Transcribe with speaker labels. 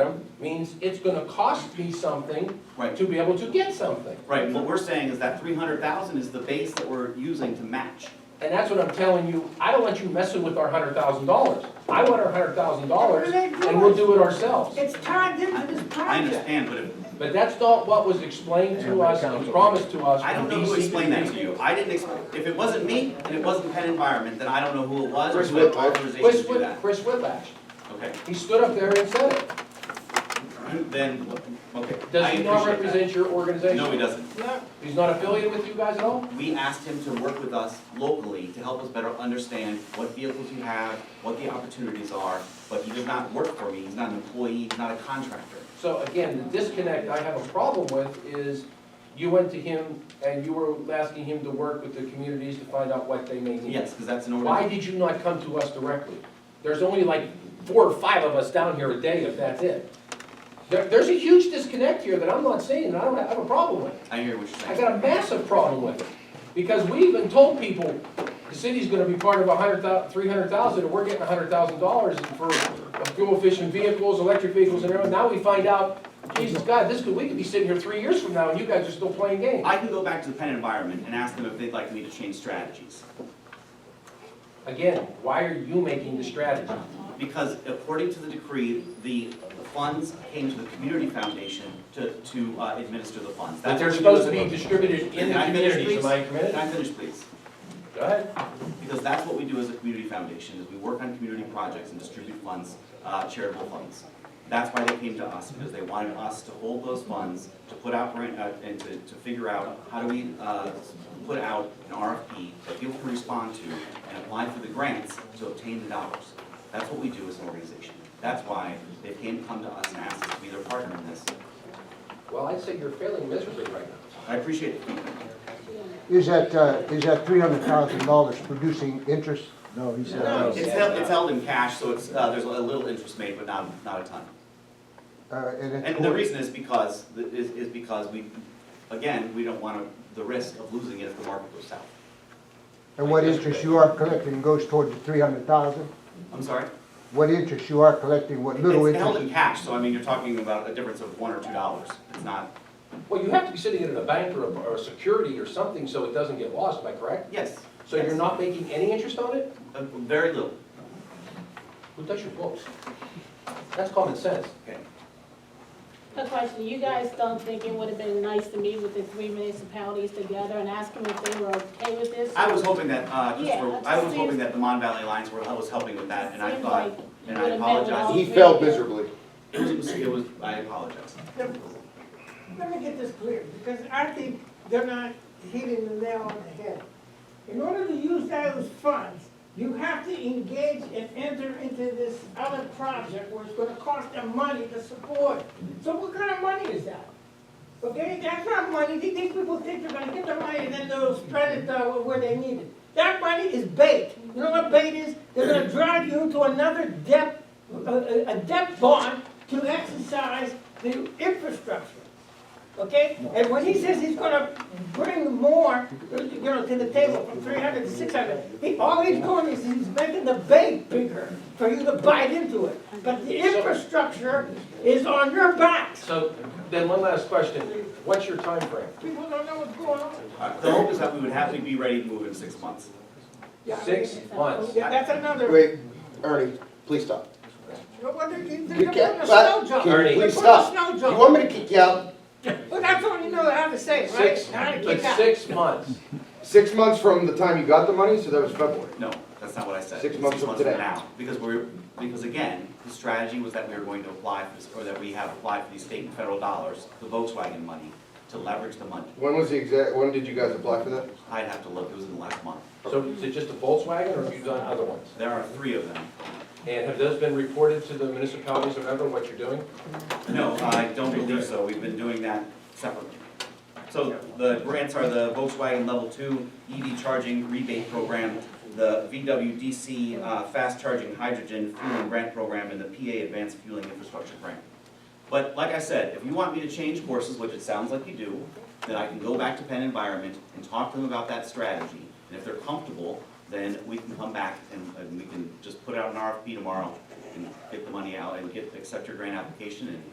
Speaker 1: them means it's gonna cost me something
Speaker 2: Right.
Speaker 1: to be able to get something.
Speaker 2: Right, what we're saying is that three hundred thousand is the base that we're using to match.
Speaker 1: And that's what I'm telling you, I don't want you messing with our hundred thousand dollars. I want our hundred thousand dollars, and we'll do it ourselves.
Speaker 3: It's tied into this
Speaker 2: I
Speaker 3: project.
Speaker 2: understand, but if,
Speaker 1: But that's not what was explained to us and promised to us
Speaker 2: I don't
Speaker 1: from
Speaker 2: know who explained that to
Speaker 1: DCPD.
Speaker 2: you. I didn't explain, if it wasn't me and it wasn't Penn Environment, then I don't know who it was or
Speaker 1: Chris
Speaker 2: who had
Speaker 1: Whitlock.
Speaker 2: authorization
Speaker 1: Chris
Speaker 2: to do
Speaker 1: Whit,
Speaker 2: that.
Speaker 1: Chris Whitlatch,
Speaker 2: Okay,
Speaker 1: he stood up there and said it.
Speaker 2: then, okay. I
Speaker 1: Does he not
Speaker 2: appreciate that.
Speaker 1: represent your
Speaker 2: No,
Speaker 1: organization?
Speaker 2: he doesn't.
Speaker 1: He's not affiliated with you guys at all?
Speaker 2: We asked him to work with us locally to help us better understand what vehicles you have, what the opportunities are, but he does not work for me. He's not an employee, he's not a contractor.
Speaker 1: So again, the disconnect I have a problem with is you went to him and you were asking him to work with the communities to find out what they may need.
Speaker 2: Yes, because that's an
Speaker 1: Why
Speaker 2: order.
Speaker 1: did you not come to us directly? There's only like four or five of us down here a day, if that's it. There, there's a huge disconnect here that I'm not seeing, and I don't have a problem with.
Speaker 2: I hear what you're
Speaker 1: I
Speaker 2: saying.
Speaker 1: got a massive problem with it, because we even told people, the city's gonna be part of a hundred thou, three hundred thousand, and we're getting a hundred thousand dollars for fuel efficient vehicles, electric vehicles, and everything, now we find out, Jesus God, this could, we could be sitting here three years from now, and you guys are still playing games.
Speaker 2: I can go back to the Penn Environment and ask them if they'd like me to change strategies.
Speaker 1: Again, why are you making the strategy?
Speaker 2: Because according to the decree, the the funds came to the community foundation to, to uh, administer the funds.
Speaker 1: But
Speaker 2: That's
Speaker 1: they're
Speaker 2: what
Speaker 1: supposed to
Speaker 2: she
Speaker 1: be
Speaker 2: was-
Speaker 1: distributed in the
Speaker 2: Can I finish,
Speaker 1: communities, am I
Speaker 2: please? Can
Speaker 1: committed?
Speaker 2: I finish, please?
Speaker 1: Go ahead.
Speaker 2: Because that's what we do as a community foundation, is we work on community projects and distribute funds, uh, charitable funds. That's why they came to us, because they wanted us to hold those funds, to put out, grant- uh, and to, to figure out, how do we uh, put out an RFP that people can respond to and apply for the grants to obtain the dollars. That's what we do as an organization. That's why they came, come to us and asked us to be their partner in this.
Speaker 1: Well, I'd say you're failing miserably right now.
Speaker 2: I appreciate it.
Speaker 4: Is that, uh, is that three hundred thousand dollars producing interest? No, he said.
Speaker 2: It's held, it's held in cash, so it's, uh, there's a little interest made, but not, not a ton.
Speaker 4: Uh, and
Speaker 2: And the
Speaker 4: it's,
Speaker 2: reason is because, is, is because we, again, we don't want to, the risk of losing it if the market goes south.
Speaker 4: and what interest you are collecting goes toward the three hundred thousand?
Speaker 2: I'm sorry?
Speaker 4: What interest you are collecting, what little
Speaker 2: It's held
Speaker 4: interest?
Speaker 2: in cash, so I mean, you're talking about a difference of one or two dollars. It's not,
Speaker 1: Well, you have to be sitting in a bank or a, or a security or something, so it doesn't get lost, am I correct?
Speaker 2: yes.
Speaker 1: So you're
Speaker 2: yes.
Speaker 1: not making any interest on it?
Speaker 2: Uh, Very little.
Speaker 1: Who does your books? That's common sense.
Speaker 2: Okay.
Speaker 5: A question, you guys don't think it would have been nice to meet with the three municipalities together and ask them if they were okay with this?
Speaker 2: I was hoping that, uh, just
Speaker 5: Yeah,
Speaker 2: for,
Speaker 5: it
Speaker 2: I was
Speaker 5: seems-
Speaker 2: hoping that the Mon Valley Alliance were, was helping with that, and I
Speaker 5: Seems
Speaker 2: thought,
Speaker 5: like
Speaker 2: and I
Speaker 5: you would've met with all
Speaker 2: apologize.
Speaker 5: three
Speaker 6: He
Speaker 5: of
Speaker 6: failed
Speaker 5: them.
Speaker 6: miserably.
Speaker 2: It was, it was, I apologize.
Speaker 3: Let me get this clear, because I think they're not hitting the nail on the head. In order to use those funds, you have to engage and enter into this other project where it's gonna cost them money to support. So what kind of money is that? Okay, that's not money, these these people think they're gonna get the money and then they'll spread it uh, where they need it. That money is bait. You know what bait is? They're gonna drive you to another debt, a- a a debt bond to exercise the infrastructure. Okay? And when he says he's gonna bring more, you know, to the table from three hundred to six hundred, he, all he's doing is he's making the bank bigger for you to bite into it. But the infrastructure is on your backs.
Speaker 1: So then one last question. What's your time frame?
Speaker 3: People don't know what's going on.
Speaker 2: Uh, The hope is that we would have to be ready to move in six months.
Speaker 3: Yeah, I
Speaker 1: Six
Speaker 3: mean,
Speaker 1: months.
Speaker 3: yeah, That's another,
Speaker 6: Wait, Ernie, please stop.
Speaker 3: no wonder you-
Speaker 6: You
Speaker 3: they're putting
Speaker 6: can't,
Speaker 3: a
Speaker 6: but,
Speaker 3: snow job.
Speaker 6: can
Speaker 1: Ernie.
Speaker 6: you
Speaker 3: They're
Speaker 6: please
Speaker 3: putting a
Speaker 6: stop?
Speaker 3: snow
Speaker 6: You
Speaker 3: job.
Speaker 6: want me to kick you out?
Speaker 3: Well, that's all you know how to say, right?
Speaker 1: Six,
Speaker 3: How to
Speaker 1: but
Speaker 3: kick out.
Speaker 1: six months.
Speaker 6: Six months from the time you got the money, so that was February.
Speaker 2: No, that's not what I said.
Speaker 6: Six months from today.
Speaker 2: now, because we're, because again, the strategy was that we were going to apply for, this- or that we have applied for these state and federal dollars, the Volkswagen money, to leverage the money.
Speaker 6: When was the exact, when did you guys apply for that?
Speaker 2: I'd have to look, it was in the last month.
Speaker 1: So is it just a Volkswagen or have you done other ones?
Speaker 2: There are three of them.
Speaker 1: And have those been reported to the municipalities of Everett, what you're doing?
Speaker 2: No, I don't believe so, we've been doing that separately. So the grants are the Volkswagen Level Two EV Charging Rebate Program, the VWDC uh, Fast Charging Hydrogen Fueling Grant Program, and the PA Advanced Fueling Infrastructure Grant. But like I said, if you want me to change courses, which it sounds like you do, then I can go back to Penn Environment and talk to them about that strategy. And if they're comfortable, then we can come back and, and we can just put out an RFP tomorrow and get the money out and get, accept your grant application and